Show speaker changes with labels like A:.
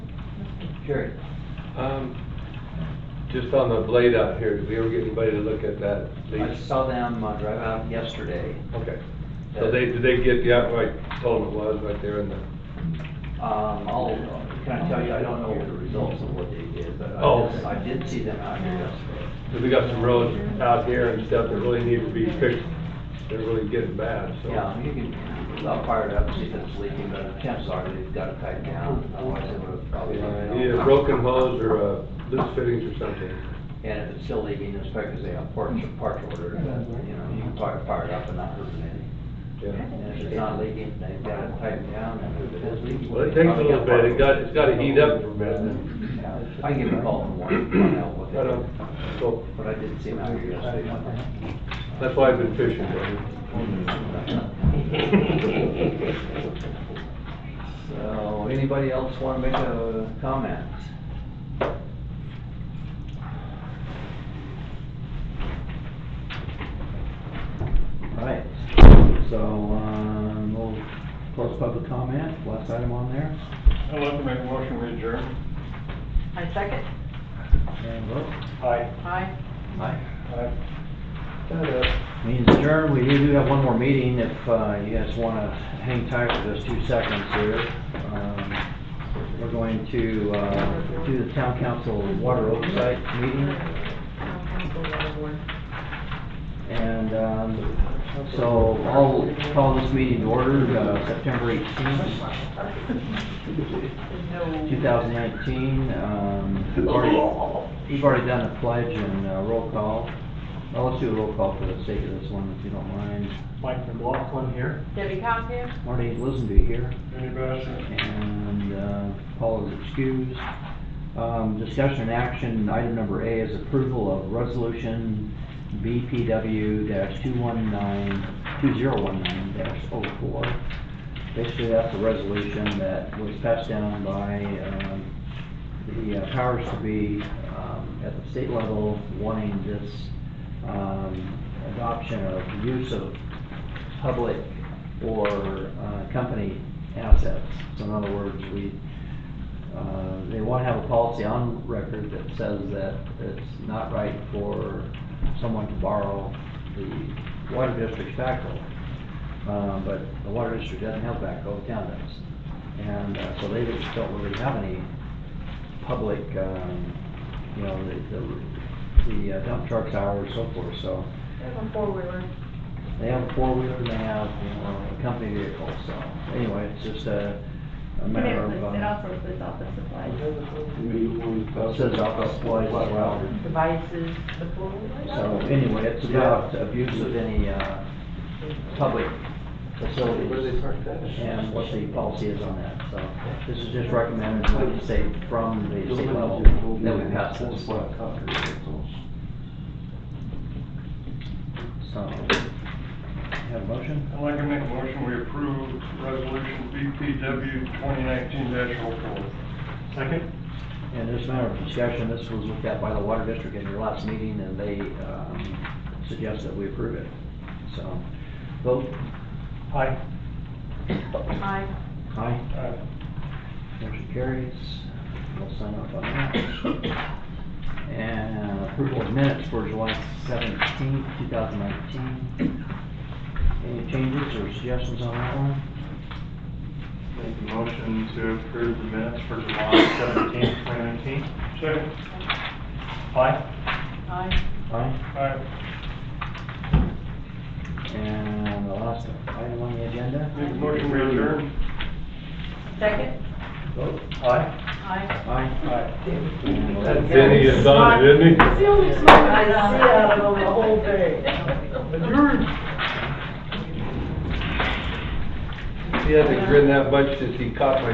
A: Jerry?
B: Um, just on the blade out here, did we ever get anybody to look at that
A: I
B: lease?
A: saw them uh, drive out yesterday.
B: Okay, so they, did they get the, out- I told them it was right there in the,
A: Um, I'll, can I tell you, I don't know the results of what they did, but
B: Oh.
A: I did, I did see them out here yesterday.
B: 'cause we got some roads out here and stuff that really need to be fixed. They're really getting bad, so.
A: Yeah, you can, I'll fire it up, and see if it's leaking, but the chances are they've got it tightened down, otherwise it would have probably.
B: Yeah, Either broken hose or, uh, loose fittings or something.
A: And if it's still leaking, it's because they have parts, parts order, but, you know, you can fire, fire it up and not hurt anything.
B: Yeah.
A: And if it's not leaking, they've got it tightened down, and if it is leaking.
B: Well,
A: they've
B: it takes a
A: probably
B: little bit, it
A: part
B: got, it's gotta heat up for a bit.
A: order. Yeah, I can give them a call and warn find out what
B: I don't,
A: they
B: so,
A: did, but I did see them out here yesterday.
B: that's why I've been fishing, buddy.
A: So, anybody else want to make a comment? Right, so, um, we'll close public comment, last item on there,
C: I'd like to make a motion to adjourn.
D: I second.
A: and vote.
C: Aye.
D: Aye.
A: Aye.
C: Aye.
A: Means adjourned, we do have one more meeting if, uh, you guys want to hang tight for those two seconds here. Um, We're going to, uh, do the town council water oversight meeting. And, um, so I'll call this meeting to order, uh, September eighteenth, two thousand nineteen. Um, we've already- we've already done the pledge and uh, roll call. Well, let's do a roll call for the sake of this one, if you don't mind.
C: Mike McLaughlin here.
D: Debbie Cowham?
A: Marty Lisenby here,
C: Ernie Bass.
A: and, uh, Paul is excused. Um, discussion and action, item number A is approval of resolution BPW dash two one nine, two zero one nine dash oh four. Basically, that's a resolution that was passed down by, um, the uh, powers to be, um, at the state level wanting this, um, adoption of use of public or, uh, company assets. So in other words, we, uh, they want to have a policy on record that says that it's not right for someone to borrow the water district's backhoe. Um, but the water district doesn't have backhoe, the town does. And, uh, so they just don't really have any public, um, you know, the, the, the uh, dump trucks, hours, so forth, so.
D: There's a four-wheeler.
A: They have a four-wheeler and they have, you know, a company vehicle, so, anyway, it's just a, a
E: And
A: matter
E: it
A: of,
E: was- it
A: um,
E: also says office supplies.
A: it says office supplies as well.
D: Devices. The four-wheeler?
A: So anyway, it's about abuse of any, uh, public facilities and what the policy is on that, so. This is just recommended, like you say, from the state level that we pass this, so. Have a motion?
C: I'd like to make a motion we approve resolution BPW 2019-04. Second.
A: And this matter of discussion, this was looked at by the water district in your last meeting, and they um, suggest that we approve it. So, vote
C: Aye.
D: Aye.
A: aye,
C: Aye.
A: motion carries. We'll sign off on that. And approval of minutes for July seventeenth, two thousand nineteen. Any changes or suggestions on that one?
F: Make a motion to approve the minutes for July seventeenth, twenty nineteen.
C: Second. Aye.
D: Aye.
A: Aye.
C: Aye.
A: And the last item on the agenda?
C: Make a motion we adjourn.
D: Second?
A: Vote
C: Aye.
D: Aye.
A: aye.
C: Aye.
A: And
B: That's Denny and Donna, isn't he?
D: It's the only smoke I see out of them the whole day.
B: He hasn't grinned that much since he caught my